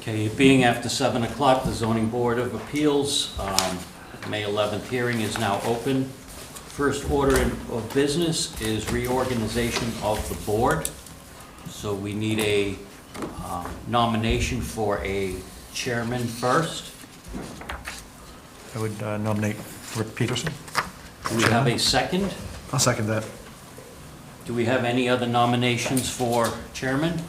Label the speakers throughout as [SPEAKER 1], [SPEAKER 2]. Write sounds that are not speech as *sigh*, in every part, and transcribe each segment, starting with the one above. [SPEAKER 1] Okay, it being after 7 o'clock, the zoning board of appeals, um, May 11th hearing is now open. First order in- of business is reorganization of the board. So we need a um, nomination for a chairman first.
[SPEAKER 2] I would uh, nominate Rick Peterson.
[SPEAKER 1] Do we have a second?
[SPEAKER 2] I'll second that.
[SPEAKER 1] Do we have any other nominations for chairman?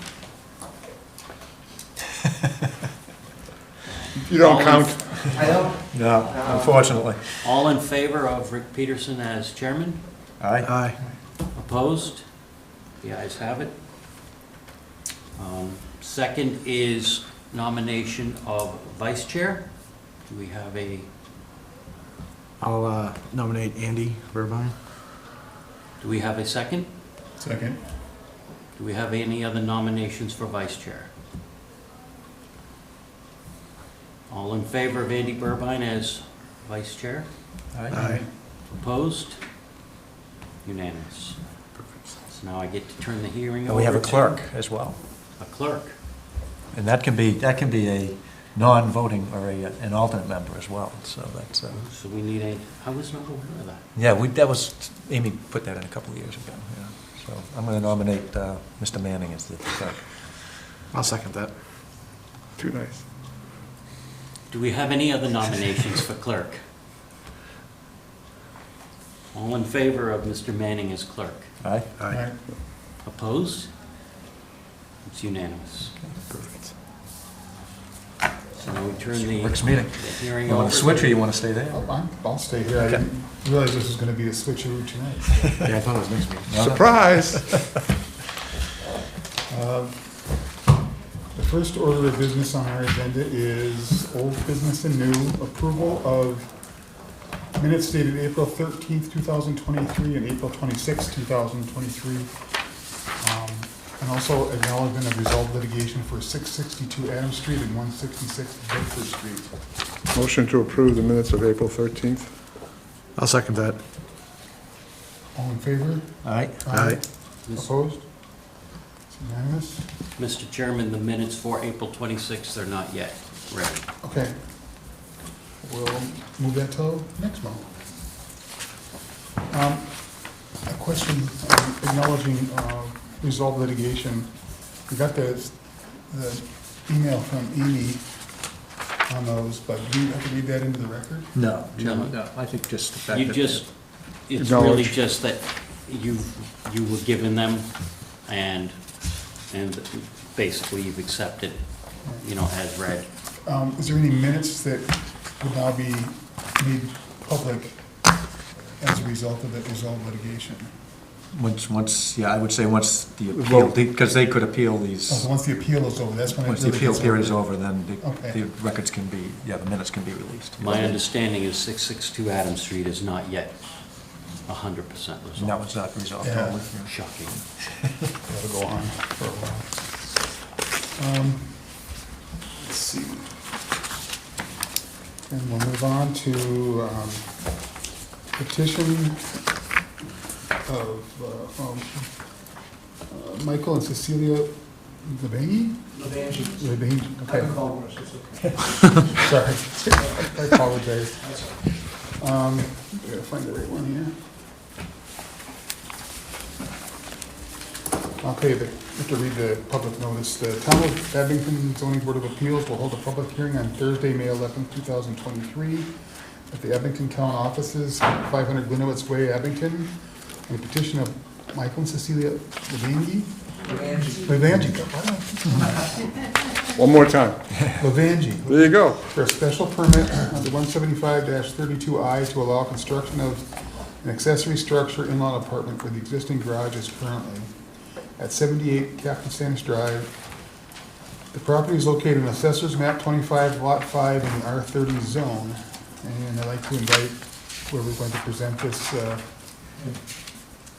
[SPEAKER 3] You don't
[SPEAKER 1] All in-
[SPEAKER 3] count.
[SPEAKER 4] I don't,
[SPEAKER 2] No, unfortunately.
[SPEAKER 1] All in favor of Rick Peterson as chairman?
[SPEAKER 2] Aye. Aye.
[SPEAKER 1] Opposed? The ayes have it. Um, Second is nomination of vice chair. Do we have a,
[SPEAKER 5] I'll uh, nominate Andy Burbine.
[SPEAKER 1] do we have a second?
[SPEAKER 3] Second.
[SPEAKER 1] Do we have any other nominations for vice chair? All in favor of Andy Burbine as vice chair?
[SPEAKER 2] Aye.
[SPEAKER 1] Opposed? Unanimous. So now I get to turn the hearing over
[SPEAKER 2] And we have a
[SPEAKER 1] to-
[SPEAKER 2] clerk as well.
[SPEAKER 1] A clerk.
[SPEAKER 2] And that can be, that can be a non-voting or a, an alternate member as well, so that's, uh,
[SPEAKER 1] So we need a, I was not aware of that.
[SPEAKER 2] yeah, we, that was, Amy put that in a couple of years ago, yeah. So I'm going to nominate uh, Mr. Manning as the clerk.
[SPEAKER 5] I'll second that.
[SPEAKER 3] Too nice.
[SPEAKER 1] Do we have any other nominations for clerk? All in favor of Mr. Manning as clerk?
[SPEAKER 2] Aye?
[SPEAKER 3] Aye.
[SPEAKER 1] Opposed? It's unanimous.
[SPEAKER 2] Perfect.
[SPEAKER 1] So now we turn the
[SPEAKER 2] Works meeting.
[SPEAKER 1] the hearing
[SPEAKER 2] You
[SPEAKER 1] over.
[SPEAKER 2] want to switch or you want to stay there?
[SPEAKER 3] Oh, I'm- I'll stay here. I
[SPEAKER 2] Okay.
[SPEAKER 3] didn't realize this was gonna be a switcheroo *laughs* tonight.
[SPEAKER 5] Yeah, I thought it was next meeting.
[SPEAKER 2] No, no.
[SPEAKER 3] Surprise! *laughs* Um, The first order of business on our agenda is old business and new approval of minutes dated April thirteenth, two thousand twenty-three, and April twenty-sixth, two thousand twenty-three. Um, And also acknowledgement of resolved litigation for six sixty-two Adams Street and one sixty-six Bedford Street.
[SPEAKER 6] Motion to approve the minutes of April 13th.
[SPEAKER 5] I'll second that.
[SPEAKER 3] All in favor?
[SPEAKER 2] Aye?
[SPEAKER 5] Aye.
[SPEAKER 1] Mis-
[SPEAKER 3] Opposed? It's unanimous?
[SPEAKER 1] Mr. Chairman, the minutes for April 26th are not yet ready.
[SPEAKER 3] Okay. We'll move that till next month. Um, A question um, acknowledging uh, resolved litigation. We got the, the email from Amy on those, but do you have to read that into the record?
[SPEAKER 2] No,
[SPEAKER 1] Jim,
[SPEAKER 2] no, I think just the
[SPEAKER 1] You just, it's really
[SPEAKER 6] Acknowledge.
[SPEAKER 1] just that you, you were given them and, and basically you've accepted, you know, as read.
[SPEAKER 3] Um, Is there any minutes that would now be made public as a result of that resolved litigation?
[SPEAKER 2] Once, once, yeah, I would say once the appeal,
[SPEAKER 6] Vote.
[SPEAKER 2] because they could appeal
[SPEAKER 3] Oh,
[SPEAKER 2] these,
[SPEAKER 3] so once the appeal is over, that's when it
[SPEAKER 2] once the
[SPEAKER 3] really
[SPEAKER 2] appeal
[SPEAKER 3] gets
[SPEAKER 2] period is over, then the,
[SPEAKER 3] Okay.
[SPEAKER 2] the records can be, yeah, the minutes can be released.
[SPEAKER 1] My understanding is 662 Adams Street is not yet 100% resolved.
[SPEAKER 2] No, it's not resolved
[SPEAKER 3] Yeah.
[SPEAKER 2] totally.
[SPEAKER 1] Shocking.
[SPEAKER 3] That'll go on for a while. Um, Let's see. And we'll move on to um, petition of uh, um, uh, Michael and Cecilia Lebangy? Lebangy, okay. *laughs* Sorry, *laughs* I apologize. Um, I gotta find the right one here. Okay, the- I have to read the public notice. The Town of Abington Zoning Board of Appeals will hold a public hearing on Thursday, May eleventh, two thousand twenty-three at the Abington Town Offices, five hundred Glenowitz Way, Abington, on the petition of Michael and Cecilia Levangi. Levangi.
[SPEAKER 6] One more time.
[SPEAKER 3] Levangi
[SPEAKER 6] There you go.
[SPEAKER 3] for a special permit under one seventy-five thirty-two I to allow construction of an accessory structure in-law apartment where the existing garage is currently at seventy-eight Captain Sanders Drive. The property is located in Assessor's Map twenty-five, Lot five, in the R thirty zone. And I'd like to invite whoever's going to present this, uh,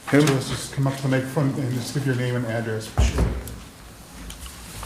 [SPEAKER 6] Him?
[SPEAKER 3] to us, just come up to the microphone and just give your name and address. Sure.